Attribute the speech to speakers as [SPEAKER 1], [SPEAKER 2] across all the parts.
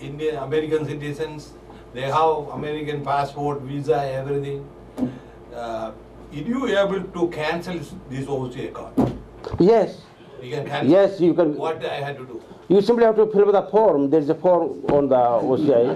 [SPEAKER 1] Indian American citizens. They have American passport, visa, everything. Uh, Are you able to cancel this OC account?
[SPEAKER 2] Yes,
[SPEAKER 1] You can cancel.
[SPEAKER 2] yes, you can.
[SPEAKER 1] What I had to do?
[SPEAKER 2] You simply have to fill up the form. There's a form on the OCI.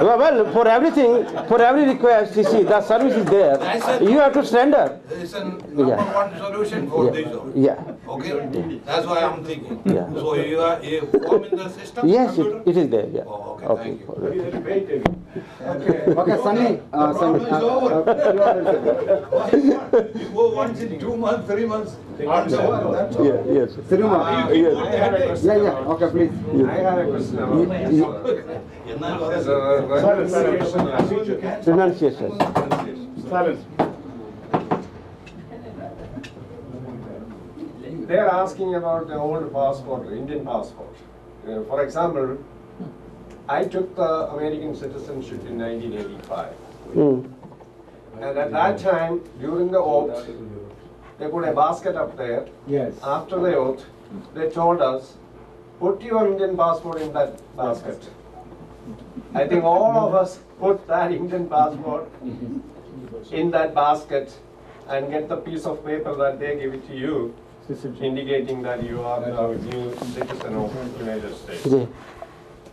[SPEAKER 2] well, well, for everything, for every request, you see, the service is there.
[SPEAKER 1] That's it.
[SPEAKER 2] You have to surrender.
[SPEAKER 1] It's a number
[SPEAKER 2] Yeah.
[SPEAKER 1] one solution for
[SPEAKER 2] Yeah.
[SPEAKER 1] this. all.
[SPEAKER 2] Yeah.
[SPEAKER 1] Okay, that's why I'm thinking.
[SPEAKER 2] Yeah.
[SPEAKER 1] So you are you form in the system?
[SPEAKER 2] Yes, it,
[SPEAKER 1] computer?
[SPEAKER 2] it is there. Yeah.
[SPEAKER 1] Oh, okay, thank you.
[SPEAKER 2] all right.
[SPEAKER 3] Okay, Sunny. Uh, Sunny.
[SPEAKER 1] problem is over.
[SPEAKER 3] Uh,
[SPEAKER 1] You go once in two months, three months.
[SPEAKER 3] uh,
[SPEAKER 2] Yeah, yes.
[SPEAKER 3] Siruma.
[SPEAKER 1] You
[SPEAKER 2] Yes.
[SPEAKER 1] put the headache.
[SPEAKER 3] Yeah, yeah. Okay, please.
[SPEAKER 4] I have a question about.
[SPEAKER 1] എന്നാൽ
[SPEAKER 4] Yes,
[SPEAKER 1] പറയാം.
[SPEAKER 4] uh, renunciation of
[SPEAKER 2] Renunciation.
[SPEAKER 4] Silence. They are asking about the old passport, Indian passport. Uh, For example, I took the American citizenship in nineteen eighty-five.
[SPEAKER 2] Mm.
[SPEAKER 4] And at that time, during the oath, they put a basket up there.
[SPEAKER 3] Yes.
[SPEAKER 1] Uh,
[SPEAKER 4] After the oath, they told us, put your Indian passport in that basket. I think all of us put that Indian passport in that basket and get the piece of paper that they give it to you, indicating that you are now a new citizen of United States.
[SPEAKER 2] Yeah.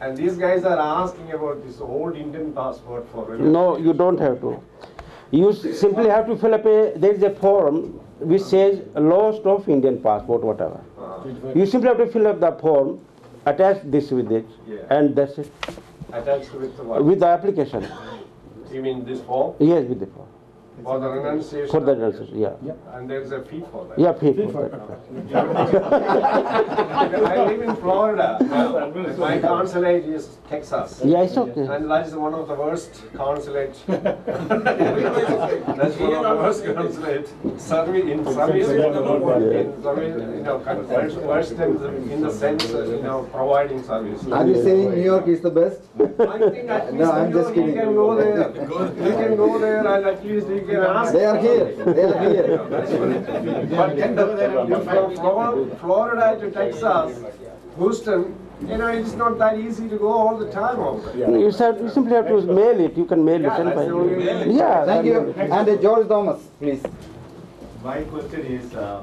[SPEAKER 4] And these guys are asking about this old Indian passport for.
[SPEAKER 2] No, you don't have to. You s- simply have to fill up a. There is a form which says lost of Indian passport, whatever.
[SPEAKER 4] Uh,
[SPEAKER 2] You simply have to fill up the form, attach this with it,
[SPEAKER 4] Yeah.
[SPEAKER 2] and that's it.
[SPEAKER 4] Attached with the what?
[SPEAKER 2] With the application.
[SPEAKER 4] You mean this form?
[SPEAKER 2] Yes, with the form.
[SPEAKER 4] For the renunciation.
[SPEAKER 2] For the renunciation, yeah.
[SPEAKER 4] And there's a fee for that.
[SPEAKER 2] Yeah, pay for that.
[SPEAKER 4] I live in Florida. My consulate is Texas.
[SPEAKER 2] Yeah, it's okay.
[SPEAKER 4] And that is one of the worst consulate. That's one of the worst consulate. Service, in service, in service, you know, con- worst, worst in, in the sense, uh, you know, providing service.
[SPEAKER 3] Are you saying New York is the best?
[SPEAKER 4] I think at
[SPEAKER 3] No, I'm
[SPEAKER 4] least
[SPEAKER 3] just
[SPEAKER 4] you you
[SPEAKER 3] kidding.
[SPEAKER 4] can go there. You can go there and at least you can ask.
[SPEAKER 3] They are here. They are here.
[SPEAKER 4] But From Flor- Florida to Texas, Houston, you know, it's not that easy to go all the time over there.
[SPEAKER 2] You said, you simply have to mail it, you can mail it
[SPEAKER 4] Yeah,
[SPEAKER 2] and
[SPEAKER 4] that's
[SPEAKER 2] by.
[SPEAKER 4] the only way.
[SPEAKER 2] Yeah. then-
[SPEAKER 3] Thank you. And uh, George Thomas, please.
[SPEAKER 5] My question is, uh,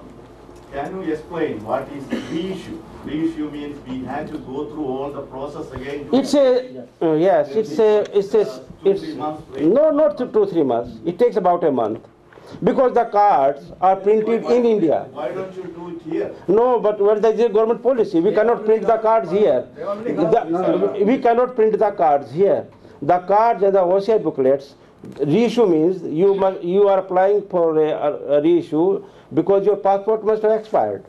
[SPEAKER 5] can you explain what is reissue? Reissue means we had to go through all the process again. to-
[SPEAKER 2] It's a, uh, yes, it's a, it's a, it's, no, not two, two, three months. It takes about a month. Because the cards are printed in India.
[SPEAKER 5] Why don't you do it here?
[SPEAKER 2] No, but what is the government policy? We cannot print the cards here. The- We cannot print the cards here. The cards and the OCI booklets, reissue means you must, you are applying for a, a reissue because your passport must have expired,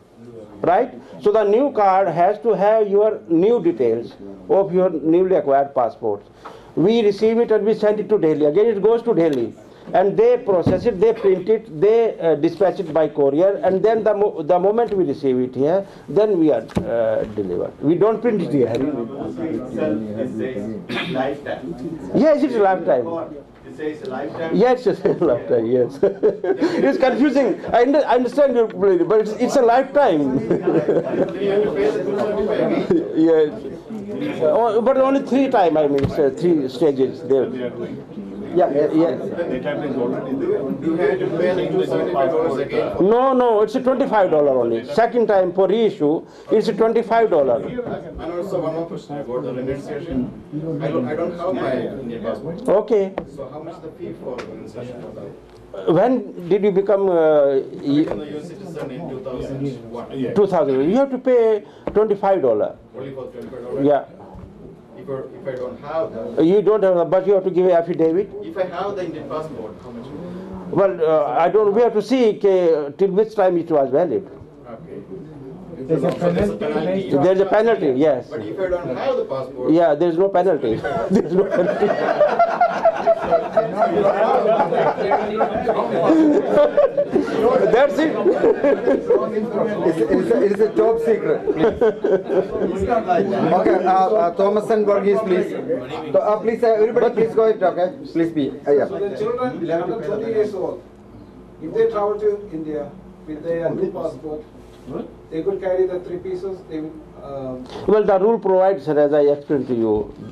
[SPEAKER 2] right? So the new card has to have your new details of your newly acquired passports. We receive it and we send it to Delhi. Again, it goes to Delhi. And they process it, they print it, they uh, dispatch it by courier, and then the, mo- the moment we receive it here, then we are uh, delivered. We don't print it here.
[SPEAKER 5] Itself, it says lifetime.
[SPEAKER 2] Yes, it's a lifetime.
[SPEAKER 5] It says lifetime.
[SPEAKER 2] Yes, it's a lifetime, yes. it's confusing. I, under- I understand your point, but it's, it's a lifetime. yes. Oh, but only three time, I mean, it's, uh, three stages there. Yeah, yeah, yeah.
[SPEAKER 5] You had to pay two seventy-five dollars again.
[SPEAKER 2] No, no, it's a $25 only. Second time for reissue, it's a $25.
[SPEAKER 6] And also one more question about the renunciation. I don't, I don't have my Indian passport.
[SPEAKER 2] Okay.
[SPEAKER 6] So how much the fee for renunciation of that?
[SPEAKER 2] When did you become uh,
[SPEAKER 6] Become
[SPEAKER 2] y-
[SPEAKER 6] the US citizen in two thousand one,
[SPEAKER 2] 2000? You have to pay $25.
[SPEAKER 6] only for twenty-five dollars.
[SPEAKER 2] Yeah.
[SPEAKER 6] If I, if I don't have that,
[SPEAKER 2] You don't have the, but you have to give an affidavit.
[SPEAKER 6] if I have the Indian passport, how much?
[SPEAKER 2] Well, uh, I don't, we have to see uh, till which time it was valid.
[SPEAKER 6] Okay. There's a penalty.
[SPEAKER 2] There's a penalty, yes.
[SPEAKER 6] But if I don't have the passport.
[SPEAKER 2] Yeah, there's no penalty. There's no penalty. That's it.
[SPEAKER 3] It's, it's, a, it's a top secret. Please. Okay, uh, uh, Thomas and Borges, please. So, uh, please, uh, everybody, please go ahead. Okay, please be. Uh,
[SPEAKER 7] So
[SPEAKER 3] yeah.
[SPEAKER 7] the children under 20 years old, if they travel to India with their new passport, they could carry the three pieces, they would, um,
[SPEAKER 2] Well, the rule provides, sir, as I explained to you,